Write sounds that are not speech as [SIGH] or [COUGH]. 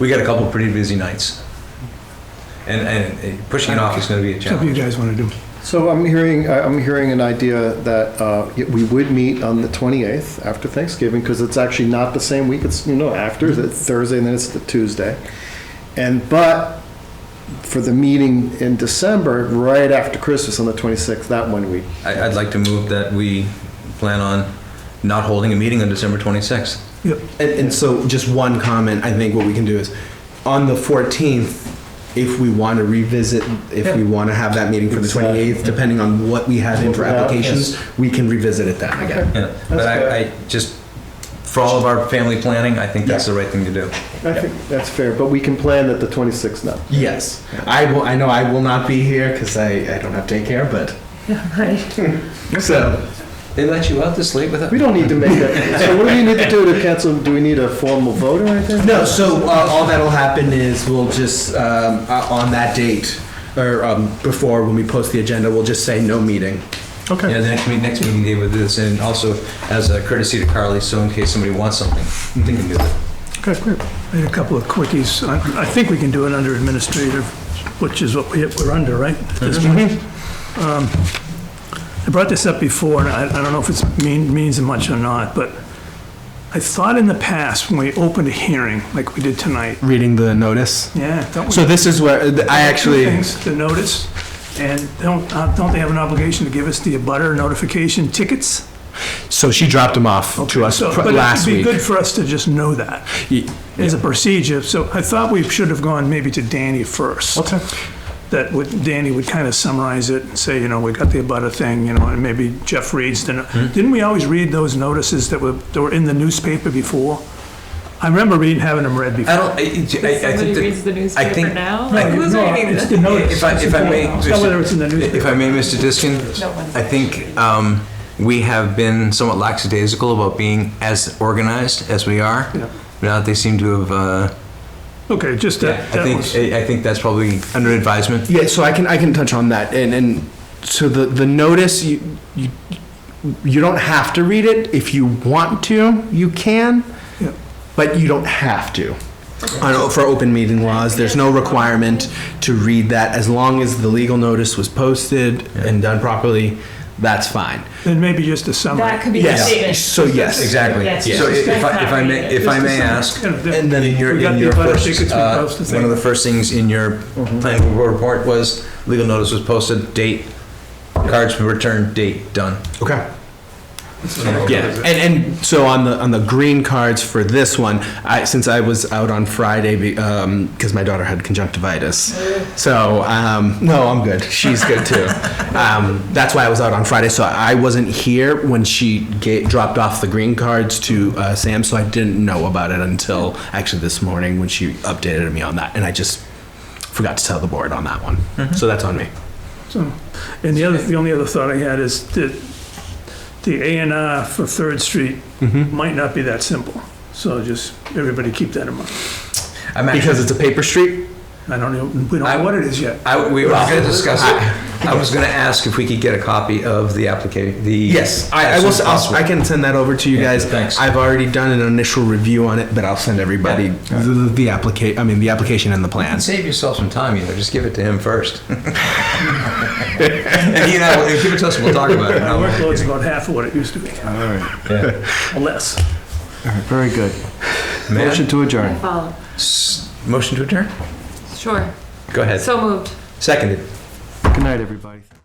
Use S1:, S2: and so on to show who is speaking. S1: We got a couple pretty busy nights. And, and uh, pushing it off is gonna be a
S2: Whatever you
S1: challenge.
S2: guys want to do.
S3: So I'm hearing, I- I'm hearing an idea that uh, y- we would meet on the 28th after Thanksgiving, because it's actually not the same week, it's, you know, after, it's Thursday and then it's the Tuesday. And, but for the meeting in December, right after Christmas on the 26th, that one week.
S1: I, I'd like to move that we plan on not holding a meeting on December twenty-sixth.
S2: Yep.
S4: And, and so, just one comment. I think what we can do is, on the 14th, if we want to revisit, if we want to have that meeting for the 28th, depending on what we have in for
S3: What we have,
S4: applications, we can revisit it then again.
S1: Yeah, but I, I just, for all of our family planning, I think that's the right thing to do.
S3: I think that's fair, but we can plan that the 26th now.
S4: Yes, I will. I know I will not be here because I, I don't have daycare, but [LAUGHS] so
S1: They let you out this late without?
S3: We don't need to make that, so what do we need to do to cancel, do we need a formal vote or anything?
S4: no. So uh, all that'll happen is we'll just um, uh, on that date or um, before when we post the agenda, we'll just say no meeting.
S1: Yeah,
S2: Okay.
S1: the next meeting, next meeting day with this, and also as a courtesy to Carly, so in case somebody wants something, they can do that.
S2: Okay, great. I had a couple of quickies. I I think we can do it under administrative, which is what we- we're under, right? at this point? Um, I brought this up before, and I I don't know if it's mean- means much or not, but I thought in the past, when we opened a hearing, like we did tonight,
S4: Reading the notice.
S2: yeah, don't we?
S4: So this is where I actually.
S2: Two things to notice, and don't, uh, don't they have an obligation to give us the abutter notification tickets?
S4: So she dropped them off to us
S2: So-
S4: pr- last
S2: But it'd
S4: week.
S2: be good for us to just know that
S4: Y-
S2: as a procedure. So I thought we should have gone maybe to Danny first.
S4: Okay.
S2: That would, Danny would kind of summarize it and say, you know, we got the abutter thing, you know, and maybe Jeff reads the, no-
S1: Hmm?
S2: didn't we always read those notices that were, that were in the newspaper before? I remember reading, having them read before.
S1: I don't, I, I- I think that.
S5: Somebody reads the
S1: I think-
S5: newspaper now?
S2: No,
S5: Like, who's
S2: no,
S5: reading
S2: it's
S5: this?
S2: the notice.
S1: If I, if I may,
S2: It's not whether it's in the newspaper.
S1: if I may, Mr. Diskin,
S5: No one's-
S1: I think um, we have been somewhat lackadaisical about being as organized as we are.
S2: Yeah.
S1: Now that they seem to have, uh,
S2: Okay, just
S1: I
S2: that, that
S1: think,
S2: was,
S1: I I think that's probably under advisement.
S4: Yeah, so I can I can touch on that and and so the the notice you you you don't have to read it if you want to you can,
S2: Yeah.
S4: but you don't have to. I know for open meeting laws, there's no requirement to read that as long as the legal notice was posted and done properly. That's fine.
S2: then maybe just a summary.
S5: That could be the
S4: Yes.
S5: statement.
S4: So yes.
S1: Exactly.
S5: That's
S1: So
S5: just-
S1: if I, if I may, if I may ask,
S2: You know, that-
S4: And then
S1: in your,
S2: We got
S1: in
S2: the
S1: your
S2: abutter
S1: first,
S2: tickets, we
S1: uh,
S2: posted Mm-hmm.
S1: one of
S2: things.
S1: the first things in your planning board report was legal notice was posted, date, cards were returned, date, done.
S4: Okay. Yeah, and, and so on the, on the green cards for this one, I, since I was out on Friday, be- um, because my daughter had conjunctivitis. So, um, no, I'm good. She's good too. Um, that's why I was out on Friday, so I wasn't here when she ga- dropped off the green cards to, uh, Sam, so I didn't know about it until actually this morning when she updated me on that, and I just forgot to tell the board on that one. So that's on me.
S2: So, and the other, the only other thought I had is that the A and R for Third Street
S1: Mm-hmm.
S2: might not be that simple. So just, everybody keep that in mind.
S1: I'm actually-
S4: Because it's a paper street?
S2: I don't know, we don't
S1: I-
S2: know what it is yet.
S1: I, we were going to discuss it. I was going to ask if we could get a copy of the application, the.
S4: Yes, I, I will. s- I'll, I can send that over to you
S1: Yeah,
S4: guys.
S1: thanks.
S4: I've already done an initial review on it, but I'll send everybody the, the, the applica- I mean, the application and the
S1: And
S4: plans.
S1: save yourself some time, you know, just give it to him
S4: [LAUGHS]
S1: first. And you know, if you give it to us, we'll talk about
S4: [LAUGHS]
S1: it.
S2: Our
S1: No, I'm only
S2: workload's
S1: kidding.
S2: about half of what it used to be,
S1: Yeah.
S2: or less.
S3: Very good.
S1: Matt,
S3: Motion to adjourn.
S5: Follow.
S1: s- Motion to adjourn?
S5: Oh, Sure.
S1: Go ahead.
S5: So moved.
S1: Seconded.
S3: Good night, everybody.